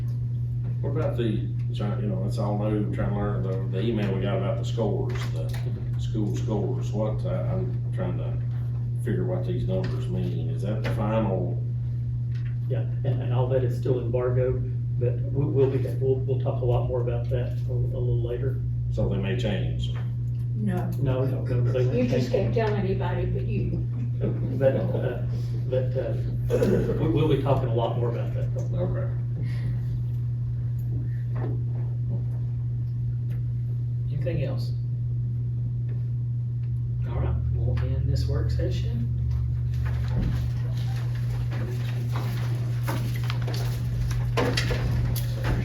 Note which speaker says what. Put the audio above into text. Speaker 1: What about the, try- you know, it's all new, trying to learn, the, the email we got about the scores, the school scores, what, I- I'm trying to figure what these numbers mean, is that the final?
Speaker 2: Yeah, and, and all that is still embargoed, but we, we'll be, we'll, we'll talk a lot more about that a, a little later.
Speaker 1: So they may change,
Speaker 3: No,
Speaker 2: No, no, no, they
Speaker 3: you
Speaker 2: won't
Speaker 3: just
Speaker 2: change.
Speaker 3: can't tell anybody but you.
Speaker 2: But, uh, but, uh, we, we'll be talking a lot more about that.
Speaker 1: okay.
Speaker 4: Anything else? All right, we'll end this work session.